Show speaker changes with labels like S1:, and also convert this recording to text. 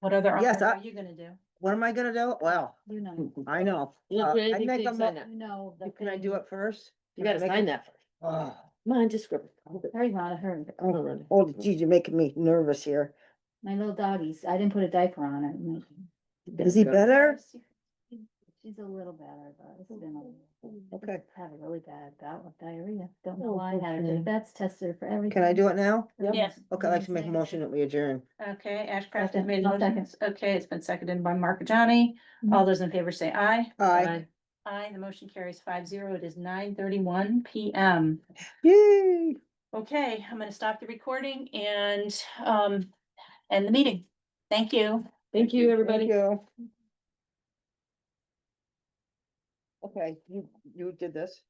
S1: What other articles
S2: Yes, I-
S1: are you gonna do?
S2: What am I gonna do? Well,
S3: You know,
S2: I know.
S4: You
S2: Uh,
S4: don't do
S2: I
S4: anything
S2: make
S4: till
S2: a
S4: you
S2: mo-
S4: sign that.
S3: you know. the
S2: Can I do
S3: thing-
S2: it first?
S4: You gotta
S2: Make
S4: sign
S2: it-
S4: that first.
S2: Ugh.
S4: Come on, just scribble.
S3: Hurry, Rhonda, hurry.
S4: I'll run it.
S2: Oh, geez, you're making me nervous here.
S3: My little doggies, I didn't put a diaper on her. Mm.
S2: Is he
S4: Go.
S2: better?
S3: She's a little better, but it's been a little.
S2: Okay.
S3: Had a really bad bout with diarrhea. Don't know
S4: Oh,
S3: why I had it.
S4: okay.
S3: The vets tested her for everything.
S2: Can I do it now?
S3: Yep.
S1: Yes.
S2: Okay, I'd like to make a motion that we adjourn.
S1: Okay, Ashcraft has
S3: Second.
S1: made
S3: I'll
S1: motions. Okay, it's been seconded by Mark Johnny. All those in favor say aye.
S2: Aye.
S4: Bye.
S1: Aye, the motion carries five zero. It is nine thirty-one PM.
S2: Yay.
S1: Okay, I'm gonna stop the recording and, um, end the meeting. Thank you.
S4: Thank you, everybody.
S2: Thank you. Okay, you, you did this.